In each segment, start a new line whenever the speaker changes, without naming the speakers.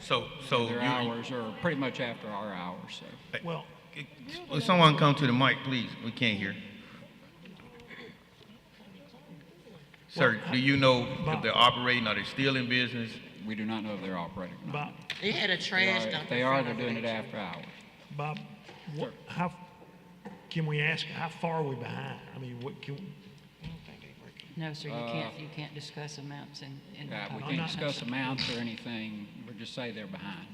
So, so
Their
you,
hours are pretty much after our hours, so.
Well,
will someone come to the mic, please? We can't hear. Sir, do you know if they're operating, are they still in business?
We do not know if they're operating or not.
Bob,
They had a
They
trash
are-
dump.
If they
in
are,
front
they're
of
doing it
it.
after hours.
Bob, what, how, can we ask, how far are we behind? I mean, what can,
No, sir, you can't, you can't discuss amounts in, in the
Uh, We
public
can't
session.
discuss amounts or anything, we just say they're behind.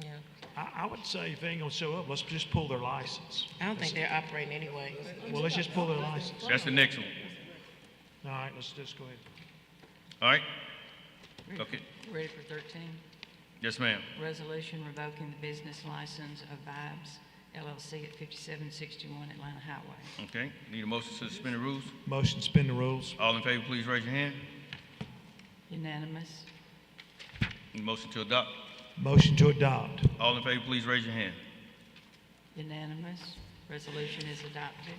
Yeah.
I, I would say if they ain't gonna show up, let's just pull their license.
I don't think they're operating anyway.
Well, let's just pull their license. All
That's the next one,
right, let's just go ahead.
all right? Okay,
Ready for thirteen?
yes, ma'am.
Resolution revoking the business license of Vibes LLC at fifty-seven sixty-one Atlanta Highway.
Okay, need a motion to suspend the rules?
Motion, spin the rules.
All in favor, please raise your hand.
Unanimous?
Need a motion to adopt?
Motion to adopt.
All in favor, please raise your hand.
Unanimous. Resolution is adopted.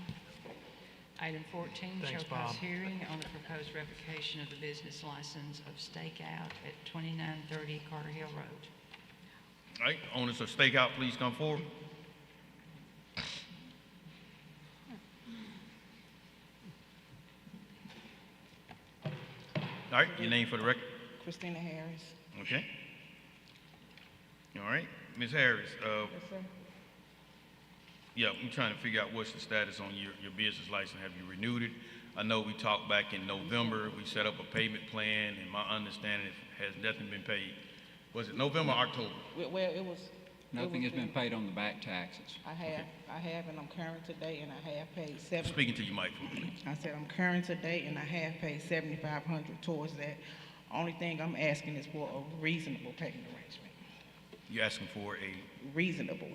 Item fourteen,
Thanks,
show cause
Bob.
hearing on the proposed revocation of the business license of Stakeout at twenty-nine thirty Carter Hill Road.
All right, owners of stakeout, please come forward. All right, your name for the record,
Christina Harris.
okay? All right, Ms. Harris, uh, yeah, I'm trying to figure out what's the status on your, your business license, have you renewed it? I know we talked back in November, we set up a payment plan, and my understanding is, has nothing been paid. Was it November, or October?
Well, well, it was. it
Nothing has
was
been
due.
paid on the back taxes.
I have, I have, and I'm current today, and I have paid seven.
Speaking to you, Mike, please.
I said I'm current today, and I have paid seventy-five hundred towards that. Only thing I'm asking is for a reasonable payment arrangement.
You're asking for a
Reasonable,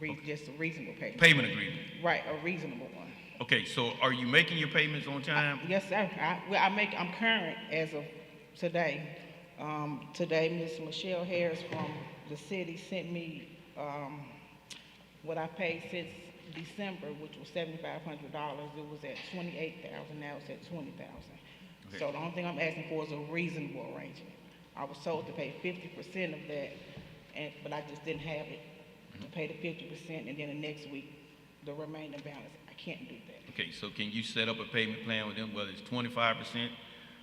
re, just a reasonable payment.
payment agreement.
Right, a reasonable one.
Okay, so are you making your payments on time?
Yes, sir. I, well, I make, I'm current as of today. Um, today, Miss Michelle Harris from the city sent me, um, what I paid since December, which was seventy-five hundred dollars. It was at twenty-eight thousand, now it's at twenty thousand. So the only thing I'm asking for is a reasonable arrangement. I was told to pay fifty percent of that, and, but I just didn't have it. To pay the fifty percent, and then the next week, the remaining balance. I can't do that.
Okay, so can you set up a payment plan with them, whether it's twenty-five percent?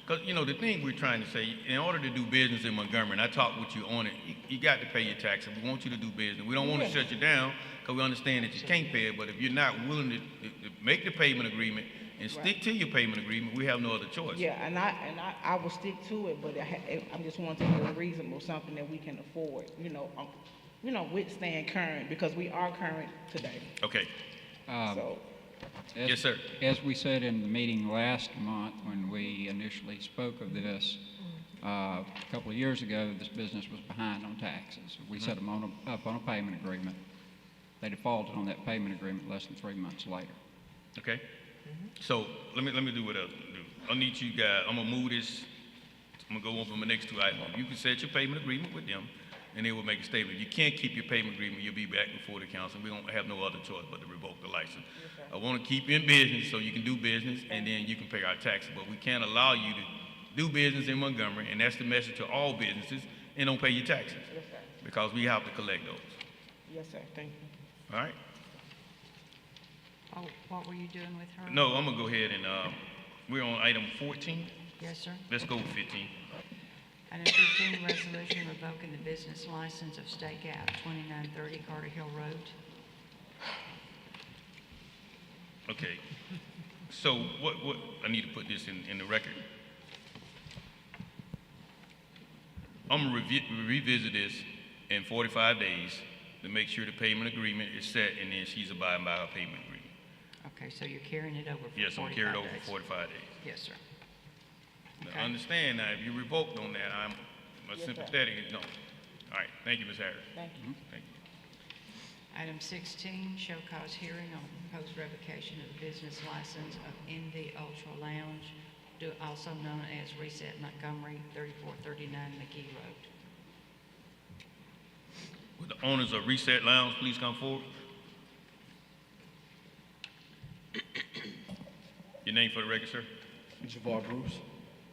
Because, you know, the thing we're trying to say, in order to do business in Montgomery, and I talked with you on it, you, you got to pay your taxes. We want you to do business. We don't want to
Yes.
shut you down, because we understand that you can't pay it, but if you're not willing to, to, to make the payment agreement and stick to your payment agreement, we have no other choice.
Yeah, and I, and I, I will stick to it, but I, ha- I'm just wanting to be reasonable, something that we can afford, you know, um, you know, withstand current, because we are current today,
Okay,
Um,
so.
As-
Yes, sir.
As we said in the meeting last month, when we initially spoke of this, uh, a couple of years ago, this business was behind on taxes.
Mm-hmm.
We set them on, a- up on a payment agreement. They defaulted on that payment agreement less than three months later.
okay? So, let me, let me do what I do. I need you guys, I'm gonna move this I'm gonna go on for my next two items. You can set your payment agreement with them, and they will make a statement. If you can't keep your payment agreement, you'll be back before the council. We don't have no other choice but to revoke the license. I wanna keep you in business so you can do business, and then you can pay our taxes, but we can't allow you to do business in Montgomery, and that's the message to all businesses, and don't pay your taxes. Because we have to collect those,
Yes, sir, thank you.
all right?
What- Oh, What were you doing with her?
No, I'm gonna go ahead and, uh, we're on item fourteen.
Yes, sir.
Let's go with fifteen.
Item fifteen, resolution revoking the business license of Stakeout, twenty-nine thirty Carter Hill Road.
Okay. So what, what, I need to put this in, in the record. I'm gonna revi- revisit this in forty-five days to make sure the payment agreement is set and then she's abiding by her payment agreement.
Okay, so you're carrying it over for
Yes, I'm
45
carried over
days.
forty-five days.
Yes, sir.
Now, understand now, if you revoked on that, I'm sympathetic, no. All right, thank you, Ms. Harris.
Thank
you. Thank you.
Item sixteen, show cause hearing on proposed revocation of the business license of NV Ultra Lounge, do- also known as Reset Montgomery, thirty-four thirty-nine McGee Road.
Would the owners of Reset Lounge please come forward? Your name for the record, sir?
Javar Bruce.